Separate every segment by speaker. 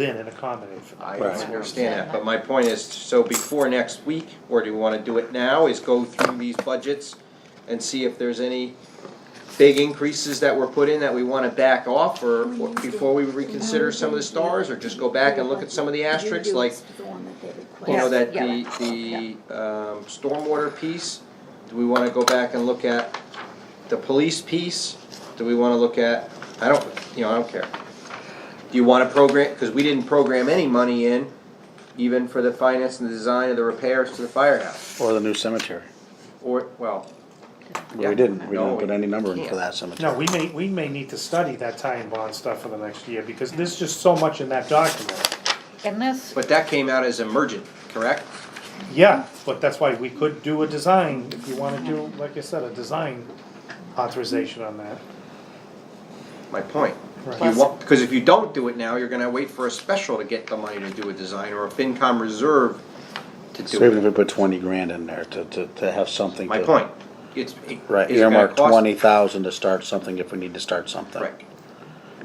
Speaker 1: in and accommodate for that.
Speaker 2: I
Speaker 3: Right.
Speaker 2: understand that, but my point is, so before next week, or do you wanna do it now, is go through these budgets and see if there's any big increases that were put in that we wanna back off, or or before we reconsider some of the stars, or just go back and look at some of the asterisks, like, you know, that the, the, um, stormwater piece, do we wanna go back and look at the police piece? Do we wanna look at, I don't, you know, I don't care. Do you wanna program, cause we didn't program any money in, even for the finance and the design of the repairs to the firehouse,
Speaker 3: Or the new cemetery.
Speaker 2: or, well,
Speaker 3: But we didn't, we
Speaker 2: No,
Speaker 3: didn't put any number in
Speaker 2: we
Speaker 3: for
Speaker 2: can't.
Speaker 3: that cemetery.
Speaker 1: No, we may, we may need to study that tie and bond stuff for the next year, because there's just so much in that document.
Speaker 4: And this,
Speaker 2: but that came out as emergent, correct?
Speaker 1: Yeah, but that's why we could do a design, if you wanna do, like I said, a design authorization on that.
Speaker 2: My point. You
Speaker 1: Right.
Speaker 2: want, because if you don't do it now, you're gonna wait for a special to get the money to do a design, or a FinCom reserve to do
Speaker 3: So even if
Speaker 2: it.
Speaker 3: we put twenty grand in there to, to, to have something
Speaker 2: My
Speaker 3: to-
Speaker 2: point, it's. it-
Speaker 3: Right,
Speaker 2: it's gonna
Speaker 3: earmark
Speaker 2: cost-
Speaker 3: twenty thousand to start something if we need to start something.
Speaker 2: Right.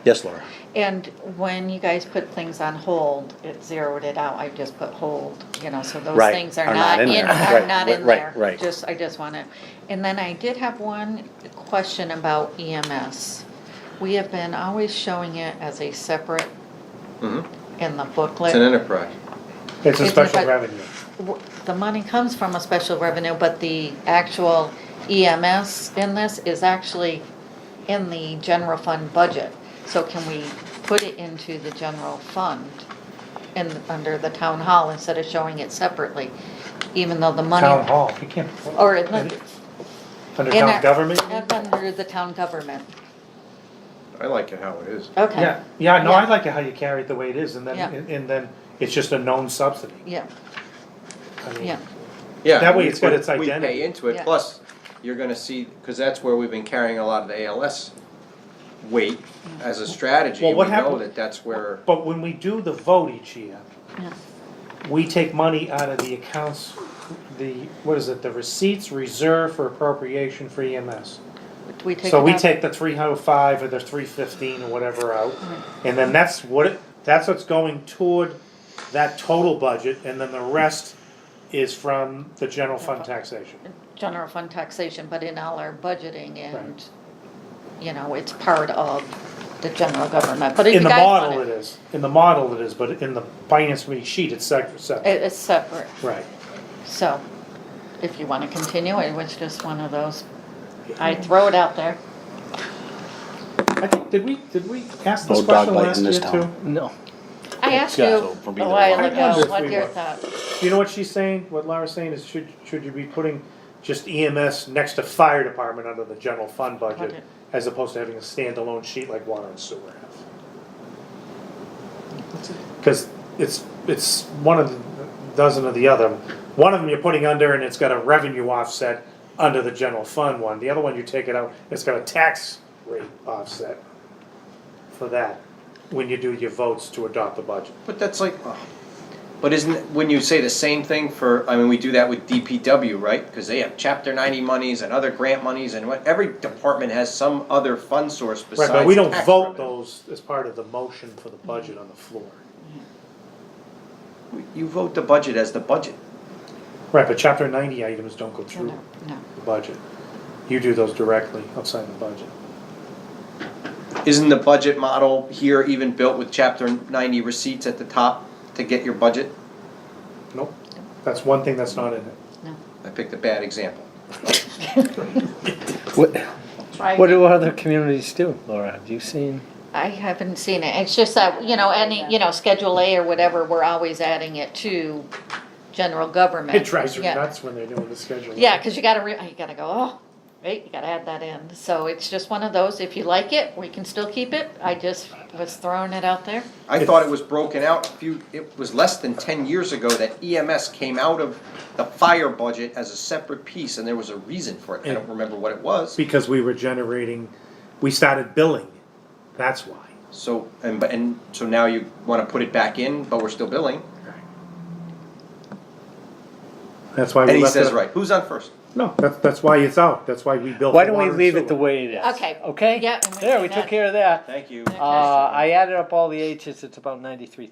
Speaker 3: Yes, Laura.
Speaker 4: and when you guys put things on hold, it zeroed it out, I just put hold, you know, so those
Speaker 3: Right,
Speaker 4: things are not in,
Speaker 3: Right,
Speaker 4: are not in
Speaker 3: right,
Speaker 4: there.
Speaker 3: right.
Speaker 4: Just, I just wanna, and then I did have one question about EMS. We have been always showing it as a separate
Speaker 2: Mhm.
Speaker 4: in the
Speaker 2: It's an
Speaker 4: booklet.
Speaker 2: enterprise.
Speaker 1: It's a
Speaker 4: It's
Speaker 1: special
Speaker 4: about-
Speaker 1: revenue.
Speaker 4: W- The money comes from a special revenue, but the actual EMS in this is actually in the general fund budget. So can we put it into the general fund in, under the town hall instead of showing it separately? Even though the money.
Speaker 1: Town hall, you can't.
Speaker 4: Or in the-
Speaker 1: Under
Speaker 4: in
Speaker 1: town
Speaker 4: a-
Speaker 1: government?
Speaker 4: and Under the town government,
Speaker 2: I like it how it is.
Speaker 4: okay.
Speaker 1: Yeah, yeah, no, I
Speaker 4: Yeah.
Speaker 1: like it how you carry it the way it is, and then,
Speaker 4: Yeah.
Speaker 1: and- and then it's just a known subsidy.
Speaker 4: Yeah,
Speaker 1: I mean,
Speaker 4: yeah,
Speaker 2: Yeah.
Speaker 1: That way
Speaker 2: we
Speaker 1: it's got
Speaker 2: put-
Speaker 1: its
Speaker 2: We
Speaker 1: identity.
Speaker 2: pay into it,
Speaker 4: Yeah.
Speaker 2: plus you're gonna see, because that's where we've been carrying a lot of the ALS weight as a strategy.
Speaker 1: Well, what
Speaker 2: We know
Speaker 1: happened-
Speaker 2: that that's where,
Speaker 1: But when we do the vote each year,
Speaker 4: yeah,
Speaker 1: we take money out of the accounts, the, what is it, the receipts reserved for appropriation for EMS.
Speaker 4: we take.
Speaker 1: So
Speaker 4: it
Speaker 1: we
Speaker 4: out.
Speaker 1: take the three hundred five or the three fifteen or whatever out, and then that's what, it- that's what's going toward that total budget, and then the rest is from the general fund taxation.
Speaker 4: general fund taxation, but in all our budgeting and,
Speaker 1: Right.
Speaker 4: you know, it's part of the general government, but if
Speaker 1: In the
Speaker 4: you guys
Speaker 1: model
Speaker 4: want
Speaker 1: it
Speaker 4: it,
Speaker 1: is, in the model it is, but in the finance committee sheet, it's separate, separate,
Speaker 4: it- it's separate,
Speaker 1: right.
Speaker 4: so if you wanna continue, it was just one of those, I throw it out there.
Speaker 1: I think, did we, did we ask this
Speaker 3: No dog
Speaker 1: question
Speaker 3: biting
Speaker 1: last year
Speaker 3: this
Speaker 1: too?
Speaker 3: town.
Speaker 5: No.
Speaker 4: I asked you
Speaker 3: Yeah,
Speaker 4: a
Speaker 3: so it'll be the
Speaker 4: while
Speaker 3: one.
Speaker 1: I wonder
Speaker 4: ago,
Speaker 1: if we
Speaker 4: what your
Speaker 1: were.
Speaker 4: thoughts,
Speaker 1: You know what she's saying, what Laura's saying is should, should you be putting just EMS next to fire department under the general fund budget
Speaker 4: Budget.
Speaker 1: as opposed to having a standalone sheet like water and sewer have? Cause it's, it's one of the dozen of the other, one of them you're putting under and it's got a revenue offset under the general fund one, the other one you take it out, it's got a tax rate offset for that, when you do your votes to adopt the budget.
Speaker 2: but that's like, oh. but isn't, wouldn't you say the same thing for, I mean, we do that with DPW, right? Because they have chapter ninety monies and other grant monies and what, every department has some other fund source
Speaker 1: Right,
Speaker 2: besides.
Speaker 1: but we don't
Speaker 2: tax
Speaker 1: vote
Speaker 2: revenue.
Speaker 1: those as part of the motion for the budget on the floor.
Speaker 2: You vote the budget as the budget.
Speaker 1: Right, but chapter ninety items don't go
Speaker 4: no,
Speaker 1: through
Speaker 4: no, no.
Speaker 1: the budget. You do those directly outside the budget.
Speaker 2: Isn't the budget model here even built with chapter ninety receipts at the top to get your budget?
Speaker 1: Nope, that's one thing that's not in it.
Speaker 2: I picked a bad example.
Speaker 5: What,
Speaker 4: Right.
Speaker 5: what do other communities do, Laura? Have you seen?
Speaker 4: I haven't seen it, it's just that, you know, any, you know, Schedule A or whatever, we're always adding it to general government.
Speaker 1: It drives you
Speaker 4: Yeah.
Speaker 1: nuts when they're doing the schedule.
Speaker 4: Yeah, because you gotta, re- you gotta go, oh, right, you gotta add that in. So it's just one of those, if you like it, we can still keep it. I just was throwing it out there.
Speaker 2: I thought it was broken out a few, it was less than ten years ago that EMS came out of the fire budget as a separate piece and there was a reason for it. I don't remember what it was.
Speaker 1: Because we were generating, we started billing, that's why.
Speaker 2: So, and, but- and so now you wanna put it back in, but we're still billing.
Speaker 1: That's why we
Speaker 2: And
Speaker 1: left it.
Speaker 2: he says, right, who's on first?
Speaker 1: No, that's, that's why it's out, that's why we built.
Speaker 5: Why
Speaker 1: the
Speaker 5: don't we
Speaker 1: water and
Speaker 5: leave it the
Speaker 1: sewer.
Speaker 5: way it is?
Speaker 4: Okay.
Speaker 5: Okay?
Speaker 4: Yeah, and we
Speaker 5: There,
Speaker 4: can
Speaker 5: we took
Speaker 4: add-
Speaker 5: care of that.
Speaker 2: Thank you.
Speaker 5: Uh, I added up all the H's, it's about ninety-three